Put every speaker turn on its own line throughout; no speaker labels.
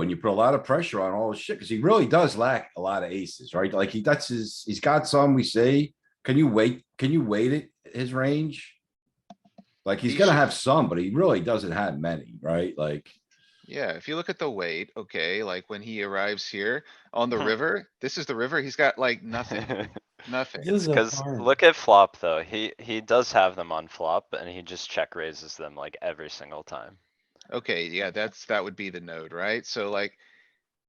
and you put a lot of pressure on all his shit, because he really does lack a lot of aces, right? Like he, that's his, he's got some, we say, can you wait, can you wait it, his range? Like he's
He
gonna
should-
have some, but he really doesn't have many, right? Like,
Yeah, if you look at the weight, okay, like when he arrives here on the
Hmm.
river, this is the river, he's got like nothing, nothing.
This is a
Cuz
farm.
look at flop though, he, he does have them on flop and he just check raises them like every single time.
Okay, yeah, that's, that would be the node, right? So like.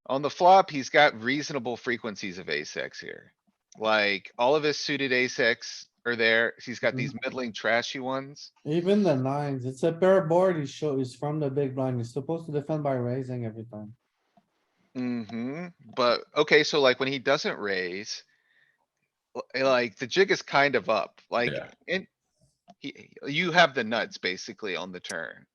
On the flop, he's got reasonable frequencies of ace X here. Like, all of his suited ace X are there. He's got these middling trashy ones.
Even the nines, it's a pair board, he show, he's from the big blind, he's supposed to defend by raising every time.
Mm-hmm, but, okay, so like when he doesn't raise. l- eh, Like, the jig is kind of up, like,
Yeah.
and. He, you have the nuts basically on the turn.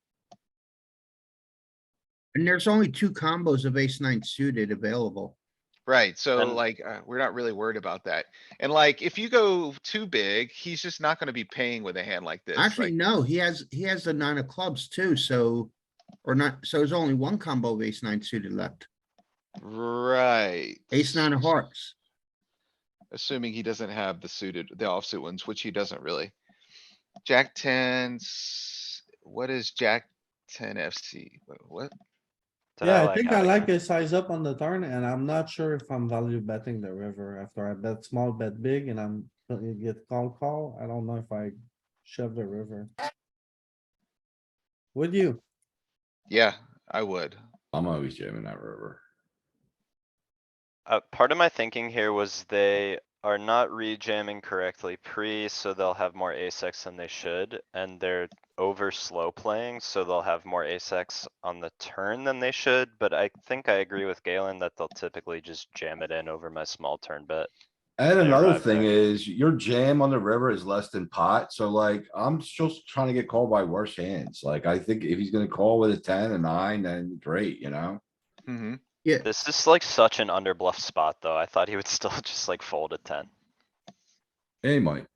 And there's only two combos of ace nine suited available.
Right, so
And-
like, uh, we're not really worried about that. And like, if you go too big, he's just not gonna be paying with a hand like this.
Actually,
like-
no, he has, he has the nine of clubs too, so, or not, so there's only one combo of ace nine suited left.
Right.
Ace nine of hearts.
Assuming he doesn't have the suited, the offsuit ones, which he doesn't really. Jack tens, what is Jack ten FC? Wha- What?
Did
Yeah, I think
how
I
he-
like a size up on the turn and I'm not sure if I'm value betting the river after I bet small, bet big and I'm, you get call, call. I don't know if I shove the river. Would you?
Yeah, I would.
I'm always jamming that river.
Uh, part of my thinking here was they are not rejamming correctly pre, so they'll have more ace X than they should, and they're over slow playing, so they'll have more ace X on the turn than they should, but I think I agree with Galen that they'll typically just jam it in over my small turn bet.
And
Yeah,
another
right,
thing
right.
is your jam on the river is less than pot, so like I'm just trying to get called by worse hands. Like I think if he's gonna call with a ten, a nine, then great, you know?
Mm-hmm.
This is like such an underbluff spot, though. I thought he would still just like fold a ten.
Hey, Mike,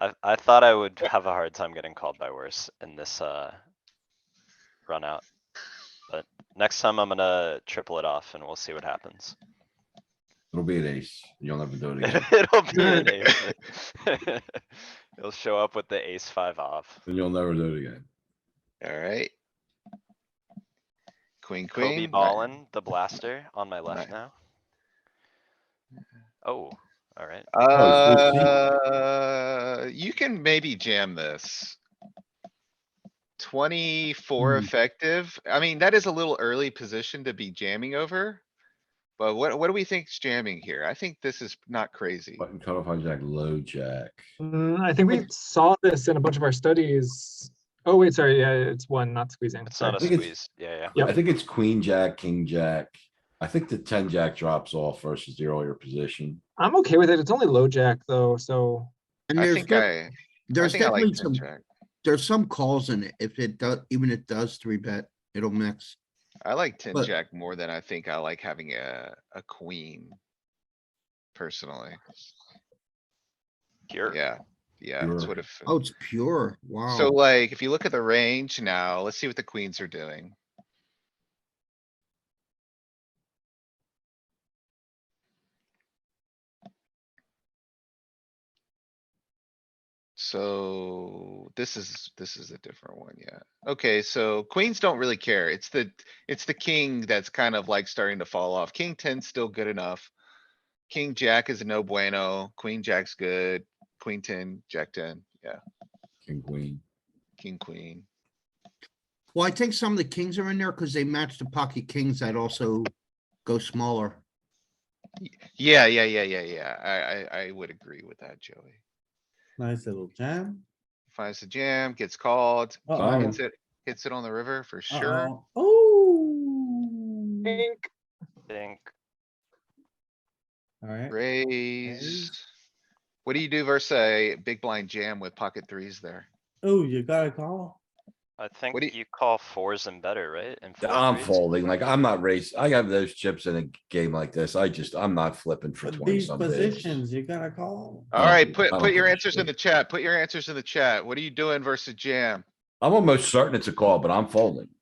I, I thought I would have a hard time getting called by worse in this, uh, run out. But next time I'm gonna triple it off and we'll see what happens.
it'll be an ace. You'll never do it again.
It'll be an ace. He'll show up with the ace five off.
And you'll never do it again.
Alright. Queen, queen.
Kobe
right.
Ballin, the blaster on my left
Right.
now. Oh, alright.
Oh, it's
Uh, you can maybe jam this. Twenty-four
Hmm.
effective. I mean, that is a little early position to be jamming over. But what, what do we think's jamming here? I think this is not crazy.
Button cutoff hijack, low jack.
Mm, I think we saw this in a bunch of our studies. Oh, wait, sorry, yeah, it's one, not squeezing.
It's
sorry.
not a
think it's-
squeeze. Yeah, yeah.
I think it's queen jack, king jack. I think the ten jack drops off versus the earlier position.
I'm okay with it. It's only low jack though, so
And
I
there's,
think
def-
I, I
there's
think I like
definitely
ten
some,
jack.
there's some calls in it. If it does, even if it does three bet, it'll mix.
I like ten
but-
jack more than I think I like having a, a queen. Personally,
Here.
yeah, yeah, that's
Sure.
what if.
Oh, it's pure. Wow.
So like, if you look at the range now, let's see what the queens are doing. So this is, this is a different one, yeah. Okay, so queens don't really care. It's the, it's the king that's kind of like starting to fall off. King ten's still good enough. King jack is a no bueno, queen jack's good, queen ten, jack ten, yeah,
King, queen.
king, queen.
Well, I think some of the kings are in there because they match the pocket kings that also go smaller.
Yeah, yeah, yeah, yeah, yeah. I, I, I would agree with that, Joey.
Nice little jam.
Finds the jam, gets called,
Uh-oh.
hits it, hits it on the river for sure.
Uh-oh. Oh.
think
Think,
Alright,
Raise. What do you do versus a big blind jam with pocket threes there?
oh, you got a call.
I think
do you-
you call fours and better, right? And four
I'm
threes?
folding, like I'm not race. I have those chips in a game like this. I just, I'm not flipping for
But
twenty
These
some days.
positions, you got a call.
I don't
Alright,
think-
put,
I don't
put your
think
answers in
should.
the chat. Put your answers in the chat. What are you doing versus jam?
I'm almost certain it's a call, but I'm folding.